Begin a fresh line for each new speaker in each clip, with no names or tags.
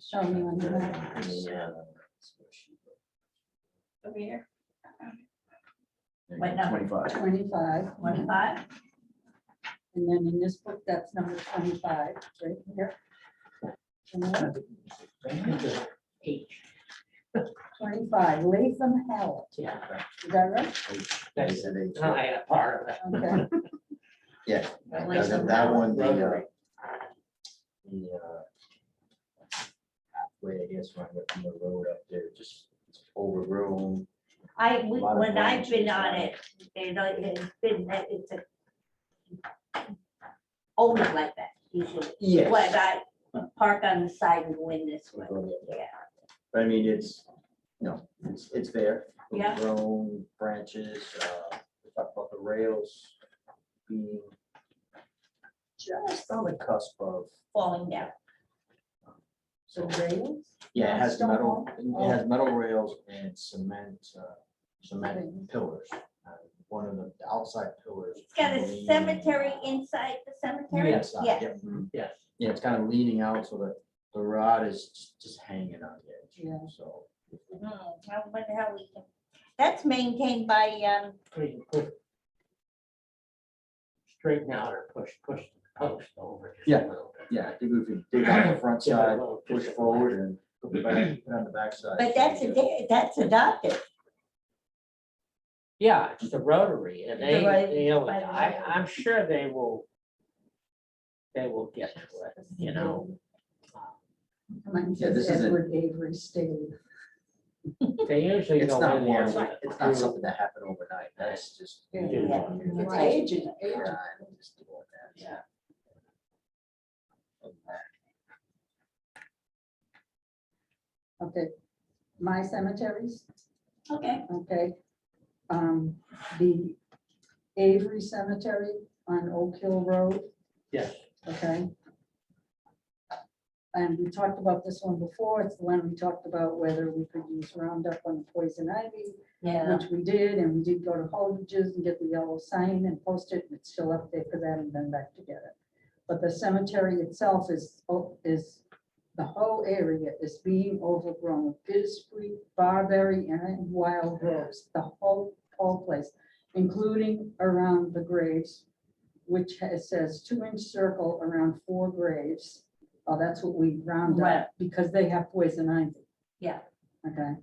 Show me when you have.
Yeah.
over here,
What number?
Twenty-five.
Twenty-five,
twenty-five?
and then in this book, that's number twenty-five, right here. And then
H.
Twenty-five, Latham Howell,
Yeah,
is that right?
They said eight.
I had a part of it.
Okay,
Yeah.
But
that-
like
that-
some
That one, the, uh,
rotary.
the, uh, halfway, I guess, when I went from the road up there, just it's overgrown.
I, we-
A lot of
when I've been
branches uh, on
on it, you know, it's been, it's a. Only like that usually.
Yes.
Like I park on the side and win this one, yeah.
But I mean, it's, you know, it's, it's there.
Yeah.
Grown branches, uh, we talked about the rails being just on the cusp of,
Falling down.
so rails.
yeah, it has
Stone
metal,
wall?
it
Oh.
has metal rails and cement, uh, cement
Things.
pillars. Uh, One of the outside pillars.
It's got a
leaning
cemetery
out.
inside the cemetery?
Inside,
Yeah.
yep.
Yes.
Yeah, it's kind of leaning out so that the rod is j- just hanging on the
Yeah.
edge, so.
Hmm, I wonder how we can, that's maintained by, um,
We can put Straighten out or push, push the post over. just a
Yeah.
little bit.
Yeah, I think we can dig out the front
Give it a
side,
little-
push
just a little-
forward and put the back, put on the back side.
but that's, a- that's adopted.
Yeah, it's the Rotary and
The
they,
right-
they, always-
by the
I,
Rotary.
I'm sure they will. They will get to it, you know. Uh,
Mine
Yeah,
says
this isn't-
Edward Avery Staley.
They usually
It's
go
not
in
one,
there. with-
it's not something that happened overnight, that's just.
Yeah.
Yeah.
It's
Right.
aging,
Yeah,
aging.
I'm just doing that. uh,
Yeah.
Okay, my cemeteries,
Okay.
okay. Um, the Avery Cemetery on Oak Hill Road,
Yes,
okay? And we talked about this one before, it's the one we talked about whether we could use Roundup on poison ivy,
Yeah.
which we did, and we did go to Holdridge's and get the yellow sign and post it, and it's still up there because I haven't been back to get it. But the cemetery itself is, o- is, the whole area is being overgrown, with bittersweet, barberry, and wild rose, the whole, whole place, including around the graves, which has, says two-inch circle around four graves. Oh, that's what we round
Right.
up, because they have poison ivy.
Yeah.
Okay.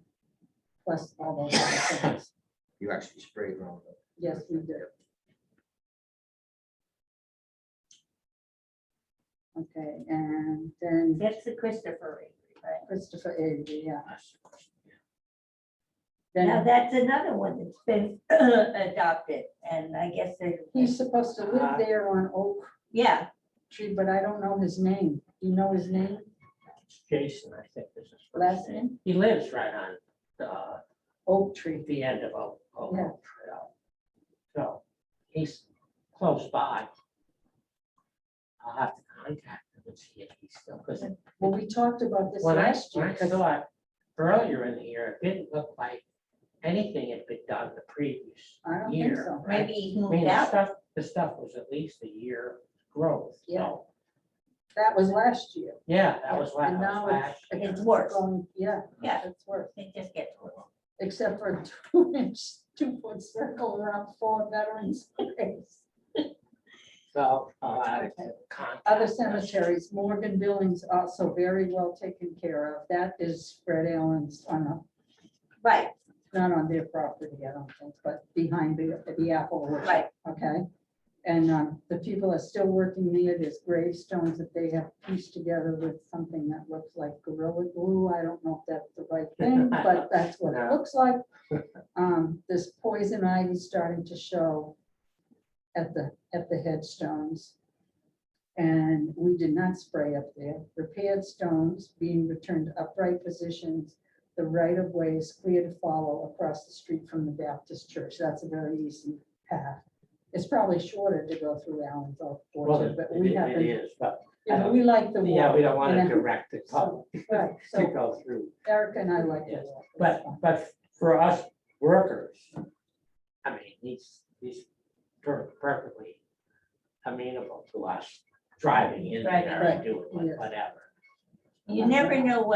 Plus all those other things.
You actually sprayed wrong.
Yes, we do. Okay, and then
That's the Christopher, Reeve, right?
Christopher Avery, yeah.
Now,
Then
that's another one that's been adopted, and I guess they, Uh,
he's supposed to live there on Oak
yeah,
Tree, but I don't know his name. You know his name,
Jason, I think this is. his
last name?
He lives right on uh, the,
Oak Tree.
the end of Oak, Oak
Yeah.
Trail. So he's close by. I'll have to contact him and see if he's still, because
Well, we talked about this
When I,
last
when
year.
I
'cause-
thought earlier in the year, it didn't look like anything had been done the previous
I don't think
year,
so.
right?
maybe he
I mean,
moved
the
out.
stuff, the stuff was at least a year growth,
Yeah.
so,
That was last year.
yeah, that was last,
And now
last.
it's-
year.
It's worse,
Going, yeah.
Yeah.
It's worse.
it just gets worse.
except for a two inch, two foot circle around four veterans. graves.
So, uh, contact.
Other
us.
cemeteries, Morgan Billings also very well taken care of. That is Fred Allen's, on a-
Right,
not on their property, I don't think, but behind the, the apple orchard,
right,
okay? And um, the people are still working near There's gravestones that they have pieced together with something that looks like gorilla glue. I don't know if that's the right thing, but that's what it looks like. Um, This poison ivy starting to show at the, at the headstones. And we did not spray up there. Repaired stones being returned to upright positions. The right of way is clear to follow across the street from the Baptist church. That's a very easy path. It's probably shorter to go through Allen's
Well,
orchard,
it
but we
it
haven't,
is, but,
yeah, we like the
yeah, we
walk.
don't want to
and then-
direct the public
So, Right,
to
so
go through.
Eric and I like the
Yes,
walk. It's
But,
fun.
but for us workers, I mean, he's, he's per- perfectly amenable to us driving in
Right,
there
right,
and doing
yes.
whatever.
You never know what